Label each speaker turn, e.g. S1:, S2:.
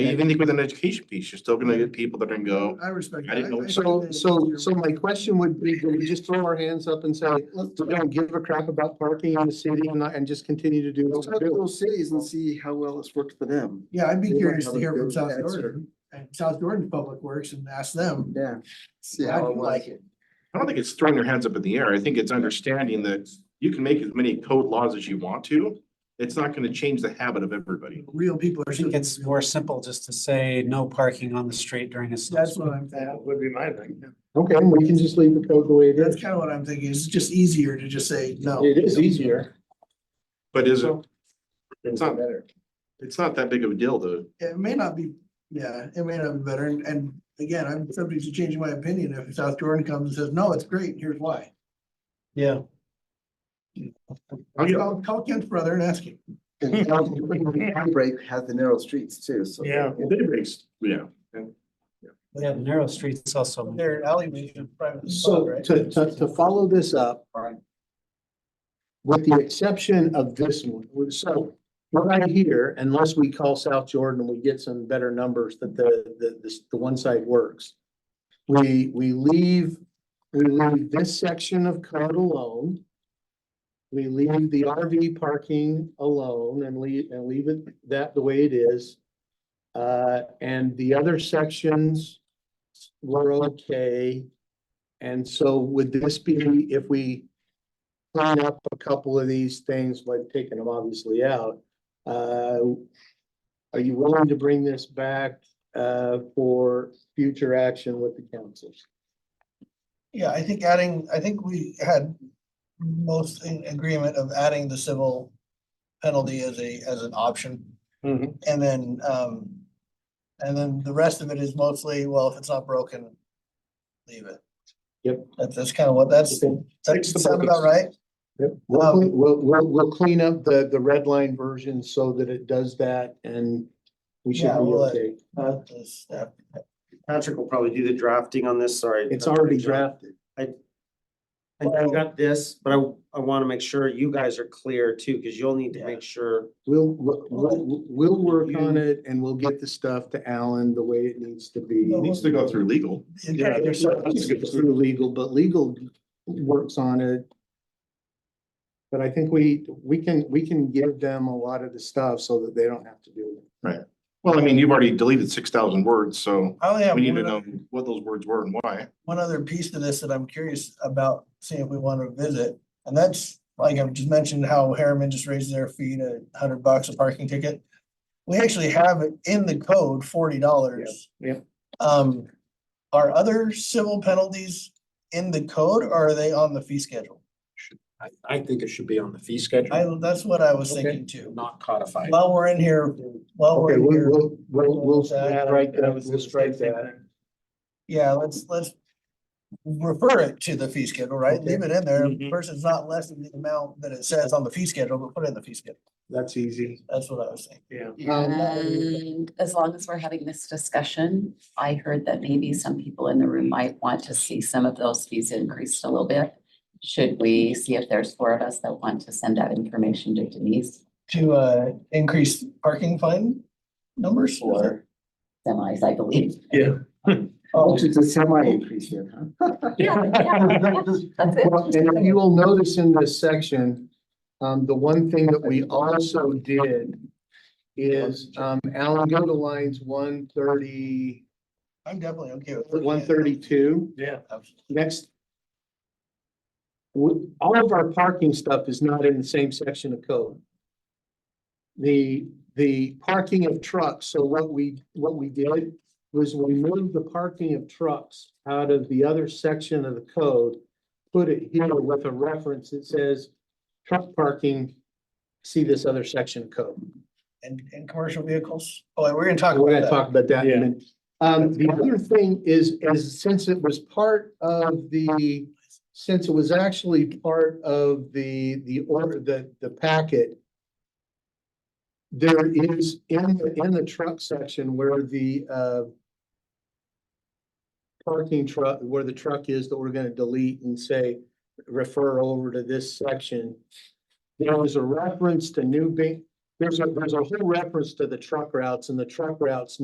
S1: Even with an education piece, you're still gonna get people that are gonna go,
S2: I respect.
S1: I
S2: that.
S1: didn't know.
S2: think
S3: So,
S2: that
S3: so,
S2: you're-
S3: so my question would be, do we just throw our hands up and say, let's, we don't give a crap about parking in the city and, not- and just continue to do
S4: Let's
S3: what we
S4: talk to
S3: do?
S4: those cities and see how well it's worked for them.
S2: Yeah, I'd be
S4: They might
S2: curious
S4: have
S2: to
S4: a
S2: hear from
S4: good
S2: South
S4: answer.
S2: Jordan and South Jordan Public Works and ask them.
S4: Yeah. See
S2: How
S4: how
S2: do
S4: it
S2: you
S4: was.
S2: like it?
S1: I don't think it's throwing your hands up in the air. I think it's understanding that you can make as many code laws as you want to. It's not gonna change the habit of everybody.
S2: Real people are.
S5: I think it's more simple just to say no parking on the street during a snow.
S2: That's what I'm thinking.
S1: would be my thing.
S3: Okay, we can just leave the code the way it
S2: That's
S3: is.
S2: kind of what I'm thinking. It's just easier to just say no.
S3: It is easier.
S1: But is it? It's not, it's not that big of a deal though.
S2: It may not be, yeah, it may not be better. And, and again, I'm subject to changing my opinion if South Jordan comes and says, no, it's great. Here's why.
S5: Yeah.
S1: I'll get-
S2: I'll call Ken's brother and ask him.
S4: And Break had the narrow streets too, so.
S1: They raised, yeah.
S5: Yeah, the narrow streets also.
S2: Their alleyways are private. spot,
S3: So
S2: right?
S3: to, to, to follow this up. With the exception of this one, so what I hear, unless we call South Jordan and we get some better numbers that the, the, the, the one side works. We, we leave, we leave this section of code alone. We leave the RV parking alone and leave, and leave it that the way it is. Uh, and the other sections were okay. And so would this be if we clean up a couple of these things, like taking them obviously out? uh, Are you willing to bring this back uh, for future action with the councils?
S2: Yeah, I think adding, I think we had most in agreement of adding the civil penalty as a, as an option.
S1: Mm-hmm.
S3: Mhm.
S2: And then, um, and then the rest of it is mostly, well, if it's not broken, leave it.
S3: Yep.
S2: That's, that's kind of what, that's, that
S1: Fix the
S2: sound about
S1: buckets.
S2: right?
S3: Yep, We'll, clean- we'll, we'll, we'll clean up the, the red line version so that it does that and we should
S2: Yeah,
S3: be
S2: we'll-
S3: okay.
S2: Not the
S1: Uh,
S2: step.
S6: Patrick will probably do the drafting on this, sorry.
S3: It's already drafted.
S6: I I got this, but I, I want to make sure you guys are clear too, because you'll need to make sure.
S3: We'll, we'll, we'll, we'll work on it and we'll get the stuff to Alan the way it needs to be.
S1: It needs to go through legal.
S3: Yeah,
S2: Okay,
S3: there's
S2: so-
S3: some, it's through legal, but legal works on it. But I think we, we can, we can give them a lot of the stuff so that they don't have to do it.
S1: Well, I mean, you've already deleted six thousand words, so
S2: I only have
S1: we need to
S2: one
S1: know
S2: other-
S1: what those words were and why.
S2: one other piece to this that I'm curious about, seeing if we want to visit. And that's, like I've just mentioned, how Harriman just raised their fee to hundred bucks a parking ticket. We actually have it in the code forty dollars.
S3: Yeah,
S2: Um, are other civil penalties in the code or are they on the fee schedule?
S7: I, I think it should be on the fee schedule,
S2: I, that's what I was
S3: Okay.
S2: thinking too.
S7: not codified.
S2: While we're in here, while we're
S3: Okay,
S2: in
S3: we'll,
S2: here,
S3: we'll, we'll, we'll
S2: That-
S3: strike that, we'll strike that.
S2: yeah, let's, let's refer it to the fee schedule, right?
S3: Okay.
S2: Leave it in there
S6: Mhm.
S2: versus not less than the amount that it says on the fee schedule, but put it in the fee schedule.
S3: That's easy.
S2: That's what I was thinking.
S3: Um, that would-
S8: And as long as we're having this discussion, I heard that maybe some people in the room might want to see some of those fees increased a little bit. Should we see if there's four of us that want to send that information to Denise
S2: To uh increase parking fine numbers or?
S8: or semis, I believe?
S4: Oh, it's a semi increase here, huh?
S8: Yeah, yeah, yeah, that's it.
S3: Well, And if you will notice in this section, um, the one thing that we also did is, um, Alan, go to lines one thirty,
S2: I'm definitely okay with. looking at it.
S3: one thirty-two.
S6: Yeah.
S3: next. w- all of our parking stuff is not in the same section of code. The, the parking of trucks, so what we, what we did was we moved the parking of trucks out of the other section of the code. Put it here with a reference that says truck parking, see this other section of code.
S2: And and commercial vehicles. Oh, we're gonna talk
S3: We're gonna
S2: about that.
S3: talk about that in a minute. Um, the other thing is, is since it was part of the, since it was actually part of the, the order, the, the packet. There is in, the in the truck section where the, uh. Parking truck, where the truck is that we're gonna delete and say, refer over to this section. There was a reference to new ba- there's a, there's a whole reference to the truck routes and the truck routes